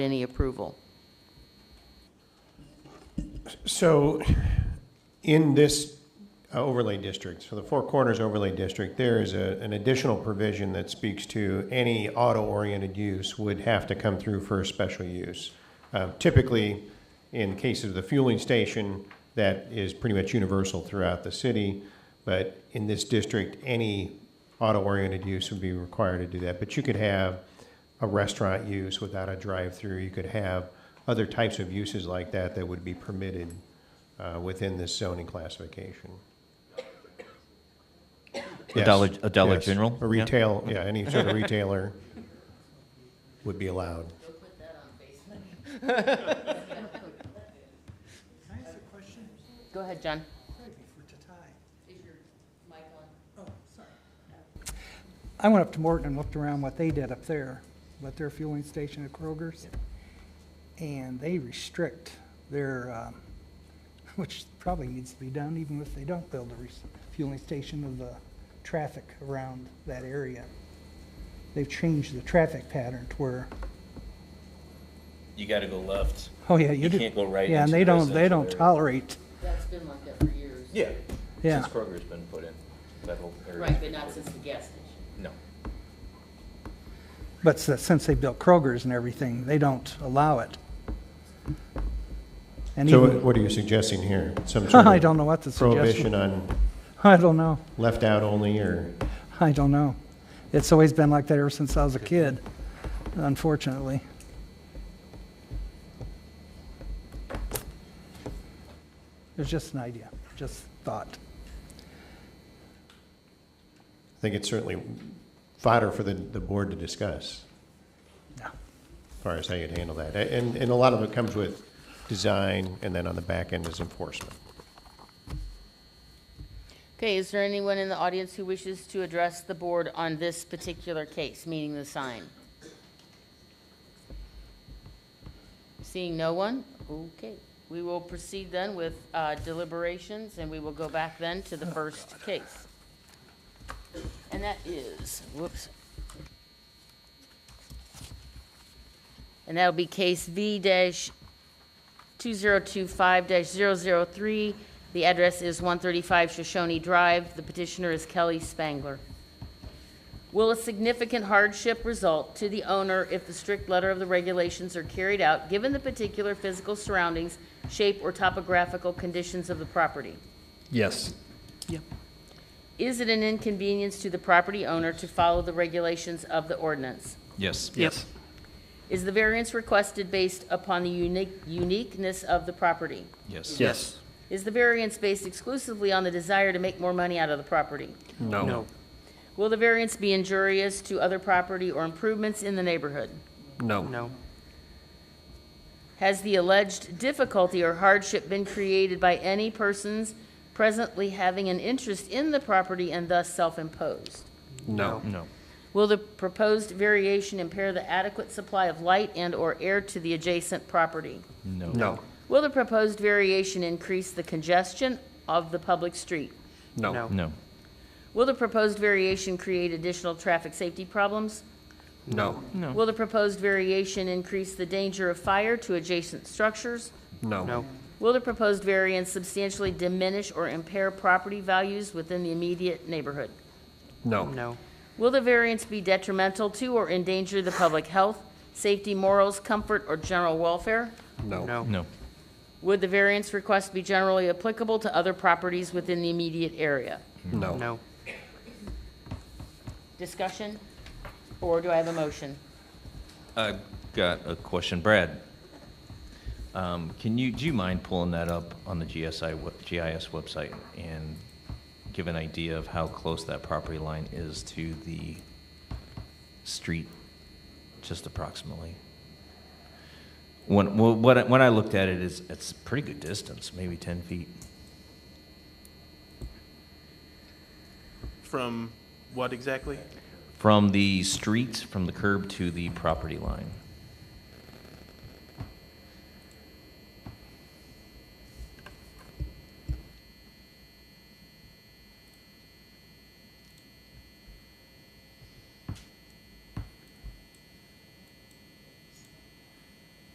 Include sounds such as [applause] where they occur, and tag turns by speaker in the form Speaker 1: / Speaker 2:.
Speaker 1: any approval.
Speaker 2: So in this uh, overlay district, so the Four Corners overlay district, there is a, an additional provision that speaks to any auto-oriented use would have to come through for a special use. Uh, Typically, in cases of the fueling station, that is pretty much universal throughout the city. But in this district, any auto-oriented use would be required to do that. But you could have a restaurant use without a drive-through. You could have other types of uses like that that would be permitted uh, within this zoning classification.
Speaker 3: A Dollar-
Speaker 2: Yes,
Speaker 3: a Dollar
Speaker 2: yes.
Speaker 3: General?
Speaker 2: A
Speaker 3: Yeah.
Speaker 2: retail, yeah, any sort of retailer would be allowed.
Speaker 4: Can I ask a question?
Speaker 1: Go ahead, John.
Speaker 4: Maybe for Tatai. Oh, I went up to Morton and looked around what they did up there, with their fueling station at Kroger's. And they restrict their, um, [laughs] which probably needs to be done even if they don't build a re- fueling station of the traffic around that area. They've changed the traffic pattern to where,
Speaker 5: you got to go left.
Speaker 4: oh yeah, you
Speaker 5: You
Speaker 4: do.
Speaker 5: can't go right
Speaker 4: Yeah, and
Speaker 5: into
Speaker 4: they
Speaker 5: the
Speaker 4: don't, they
Speaker 5: residential
Speaker 4: don't
Speaker 5: area.
Speaker 4: tolerate,
Speaker 1: That's been like that for years.
Speaker 5: Yeah.
Speaker 4: yeah.
Speaker 5: Since Kroger's been put in, that whole area.
Speaker 1: Right, but not since the gas station.
Speaker 5: No.
Speaker 4: But s- since they built Kroger's and everything, they don't allow it. And
Speaker 2: So
Speaker 4: even-
Speaker 2: what- what are you suggesting here? Some sort
Speaker 4: [laughs] I
Speaker 2: of
Speaker 4: don't know what to
Speaker 2: prohibition
Speaker 4: suggest.
Speaker 2: on
Speaker 4: [laughs] I don't know.
Speaker 2: left out only or?
Speaker 4: I don't know. It's always been like that ever since I was a kid, unfortunately. It's just an idea, just thought.
Speaker 2: I think it's certainly fodder for the, the board to discuss,
Speaker 4: Yeah.
Speaker 2: as far as how you'd handle that. And, and a lot of it comes with design, and then on the back end is enforcement.
Speaker 1: Okay, is there anyone in the audience who wishes to address the board on this particular case, meaning the sign? Seeing no one? Okay. We will proceed then with uh, deliberations, and we will go back then to the first case. And that is, whoops. And that'll be case V dash 2025-003. The address is 135 Shoshone Drive. The petitioner is Kelly Spangler. Will a significant hardship result to the owner if the strict letter of the regulations are carried out, given the particular physical surroundings, shape, or topographical conditions of the property?
Speaker 6: Yes.
Speaker 1: Is it an inconvenience to the property owner to follow the regulations of the ordinance?
Speaker 3: Yes.
Speaker 6: Yes.
Speaker 1: Is the variance requested based upon the unique- uniqueness of the property?
Speaker 3: Yes.
Speaker 6: Yes.
Speaker 1: Is the variance based exclusively on the desire to make more money out of the property?
Speaker 6: No. No.
Speaker 1: Will the variance be injurious to other property or improvements in the neighborhood?
Speaker 6: No. No.
Speaker 1: Has the alleged difficulty or hardship been created by any persons presently having an interest in the property and thus self-imposed?
Speaker 6: No.
Speaker 3: No.
Speaker 1: Will the proposed variation impair the adequate supply of light and/or air to the adjacent property?
Speaker 3: No.
Speaker 6: No.
Speaker 1: Will the proposed variation increase the congestion of the public street?
Speaker 6: No.
Speaker 3: No.
Speaker 1: Will the proposed variation create additional traffic safety problems?
Speaker 6: No.
Speaker 1: Will the proposed variation increase the danger of fire to adjacent structures?
Speaker 6: No.
Speaker 1: Will the proposed variance substantially diminish or impair property values within the immediate neighborhood?
Speaker 6: No.
Speaker 1: Will the variance be detrimental to or endanger the public health, safety, morals, comfort, or general welfare?
Speaker 6: No.
Speaker 3: No.
Speaker 1: Would the variance request be generally applicable to other properties within the immediate area?
Speaker 6: No.
Speaker 1: Discussion? Or do I have a motion?
Speaker 3: I got a question, Brad. Um, can you, do you mind pulling that up on the GSI, we- GIS website and give an idea of how close that property line is to the street, just approximately? When, well, what, I- when I looked at it, it's, it's a pretty good distance, maybe ten feet.
Speaker 7: From what exactly?
Speaker 3: From the street, from the curb to the property line.